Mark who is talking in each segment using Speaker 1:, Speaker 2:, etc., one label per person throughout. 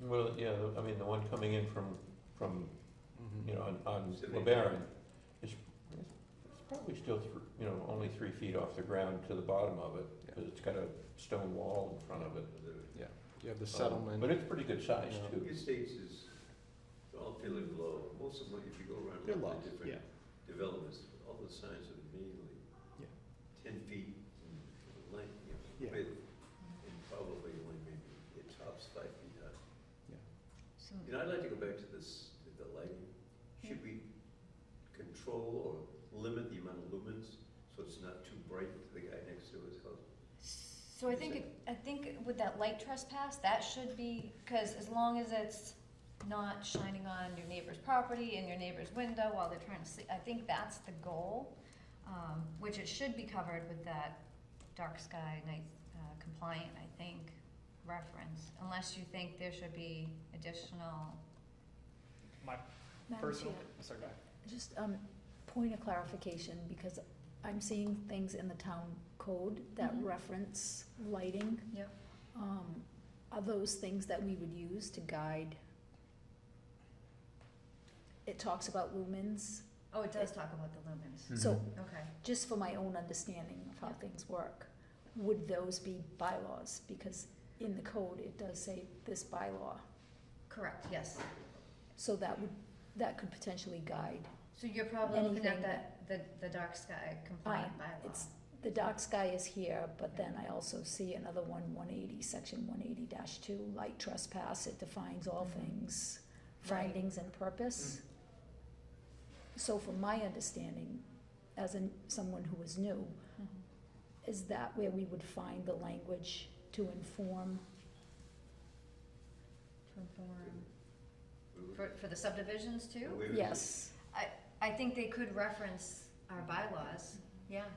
Speaker 1: Well, yeah, the- I mean, the one coming in from, from, you know, on, on
Speaker 2: Sydney.
Speaker 1: LeBaron, is, it's it's probably still, thr- you know, only three feet off the ground to the bottom of it,
Speaker 3: Yeah.
Speaker 1: because it's got a stone wall in front of it.
Speaker 3: You have the
Speaker 1: Um,
Speaker 3: settlement.
Speaker 1: But it's pretty good size,
Speaker 3: Yeah.
Speaker 1: too.
Speaker 2: Your states is all fairly low, most of them, if you go around
Speaker 3: They're
Speaker 2: all
Speaker 3: low,
Speaker 2: the different developments, all the signs are mainly
Speaker 3: Yeah.
Speaker 2: ten feet in length, you
Speaker 3: Yeah.
Speaker 2: know, width, and probably only maybe it tops five feet high.
Speaker 4: So,
Speaker 2: You know, I'd like to go back to this, to the lighting. Should we control or limit the amount of lumens so it's not too bright to the guy next to his house?
Speaker 4: so I think, it- I think with that light trespass, that should be, because as long as it's not shining on your neighbor's property and your neighbor's window while they're trying to sleep, I think that's the goal, um, which it should be covered with that dark sky night uh, compliant, I think, reference, unless you think there should be additional.
Speaker 5: My
Speaker 6: Madam Chair,
Speaker 5: personal, sorry, go ahead.
Speaker 6: just, um, point of clarification, because I'm seeing things in the town code that
Speaker 4: Mhm.
Speaker 6: reference lighting.
Speaker 4: Yep.
Speaker 6: Um, are those things that we would use to guide? It talks about lumens,
Speaker 4: Oh, it does talk about the lumens,
Speaker 6: so
Speaker 4: okay.
Speaker 6: just for my own understanding of how
Speaker 4: Yep.
Speaker 6: things work, would those be bylaws? Because in the code, it does say this bylaw,
Speaker 4: Correct, yes.
Speaker 6: so that would, that could potentially guide.
Speaker 4: So you're probably looking at
Speaker 6: Anything
Speaker 4: that, the, the dark sky compliant bylaw.
Speaker 6: It's, the dark sky is here, but then I also see another one, one eighty, section one eighty two, light trespass, it defines all
Speaker 4: Mhm.
Speaker 6: things,
Speaker 4: Right.
Speaker 6: findings and purpose. So from my understanding, as in someone who is new,
Speaker 4: Mhm.
Speaker 6: is that where we would find the language to inform?
Speaker 2: We would-
Speaker 4: Mm-hmm. For, for the subdivisions too?
Speaker 2: we would-
Speaker 6: Yes,
Speaker 4: I think they could reference our bylaws,
Speaker 6: Mm-hmm.
Speaker 4: yeah.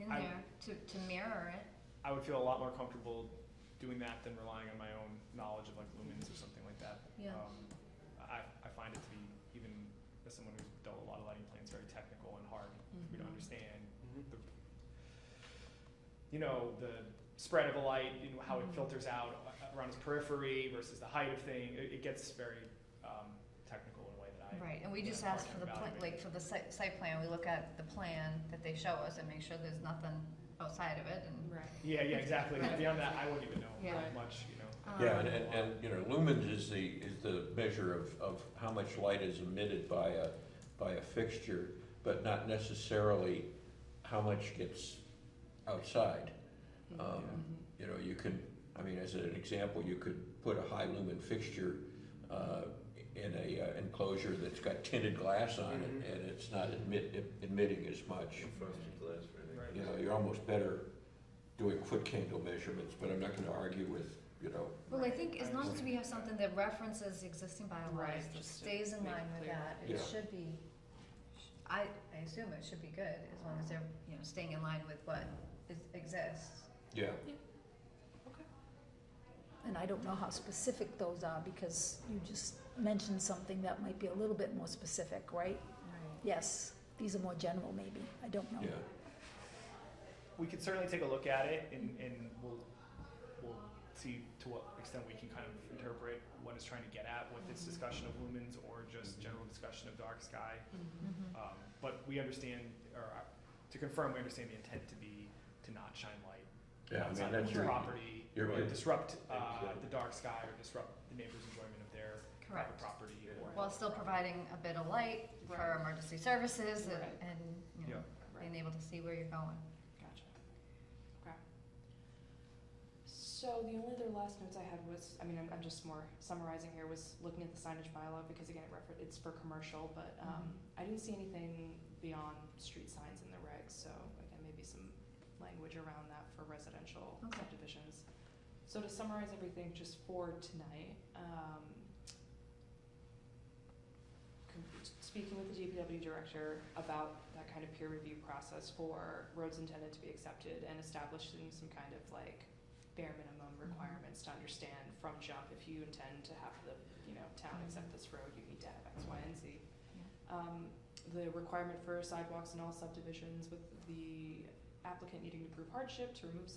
Speaker 4: In
Speaker 5: I-
Speaker 4: there, to, to mirror it.
Speaker 5: I would feel a lot more comfortable doing that than relying on my own knowledge of like lumens or something like that.
Speaker 4: Yeah.
Speaker 5: Um, I, I find it to be, even as someone who's dealt with a lot of lighting plans, very technical and hard.
Speaker 6: Mm-hmm.
Speaker 5: We don't understand the, you know, the spread of a light, you know, how it
Speaker 4: Mhm.
Speaker 5: filters out a- around its periphery versus the height of thing. It, it gets very, um, technical in a way that I.
Speaker 4: Right, and we
Speaker 5: that
Speaker 4: just
Speaker 5: I'm
Speaker 4: ask
Speaker 5: hard
Speaker 4: for the,
Speaker 5: to
Speaker 4: pla-
Speaker 5: evaluate.
Speaker 4: like, for the site, site plan, we look at the plan that they show us and make sure there's nothing outside of it and.
Speaker 7: Right.
Speaker 5: Yeah, yeah, exactly.
Speaker 4: Right.
Speaker 5: Beyond that, I wouldn't even know
Speaker 4: Yeah.
Speaker 5: that much, you know.
Speaker 1: Yeah,
Speaker 4: um,
Speaker 1: and, uh, and, and, you know, lumens is the, is the measure of, of how much light is emitted by a, by a fixture, but not necessarily how much gets outside. Um,
Speaker 4: Mm-hmm.
Speaker 1: You know, you can, I mean, as an example, you could put a high lumen fixture uh, in a uh, enclosure that's got tinted glass on it,
Speaker 2: Mhm.
Speaker 1: and it's not admit, emitting as much.
Speaker 2: Frosted glass, right?
Speaker 5: Right.
Speaker 1: You know, you're almost better doing foot candle measurements, but I'm not gonna argue with, you know,
Speaker 4: Well, I think as
Speaker 5: I
Speaker 4: long as
Speaker 5: understand.
Speaker 4: we have something that references existing bylaws,
Speaker 7: Right,
Speaker 4: that
Speaker 7: just to
Speaker 4: stays in
Speaker 7: make it
Speaker 4: line with
Speaker 7: clear.
Speaker 4: that, it
Speaker 1: Yeah.
Speaker 4: should be, I, I assume it should be good, as long as they're, you know, staying in line with what is, exists.
Speaker 1: yeah.
Speaker 6: and I don't know how specific those are, because you just mentioned something that might be a little bit more specific, right?
Speaker 4: Right.
Speaker 6: Yes, these are more general maybe, I don't know.
Speaker 1: Yeah,
Speaker 5: We could certainly take a look at it and, and we'll, we'll see to what extent we can kind of interpret what it's trying to get at with this discussion of lumens or just general discussion of dark sky.
Speaker 4: Mm-hmm.
Speaker 5: Um, but we understand, or uh, to confirm, we understand the intent to be to not shine light
Speaker 1: yeah, I mean,
Speaker 5: outside
Speaker 1: that's
Speaker 5: of
Speaker 1: your,
Speaker 5: the property,
Speaker 1: you're
Speaker 5: or
Speaker 1: right.
Speaker 5: disrupt uh,
Speaker 2: Exactly.
Speaker 5: the dark sky or disrupt the neighbor's enjoyment of their private
Speaker 4: Correct,
Speaker 5: property
Speaker 2: Yeah.
Speaker 5: or.
Speaker 4: while still providing a bit of light for
Speaker 7: Right.
Speaker 4: emergency services and,
Speaker 7: Right.
Speaker 4: and, you know, being able to see where you're going.
Speaker 7: Gotcha. Okay. So the only other last notes I had was, I mean, I'm, I'm just more summarizing here, was looking at the signage bylaw, because again, it refer, it's for commercial, but, um,
Speaker 4: Mm-hmm.
Speaker 7: I didn't see anything beyond street signs in the regs, so again, maybe some language around that for residential
Speaker 4: Okay.
Speaker 7: subdivisions. So to summarize everything just for tonight, um, con- speaking with the DPW director about that kind of peer review process for roads intended to be accepted and establishing some kind of like bare minimum requirements to understand from jump, if you intend to have the, you know, town accept this road, you need to have X, Y, and Z. Um, the requirement for sidewalks in all subdivisions with the applicant needing to prove hardship to remove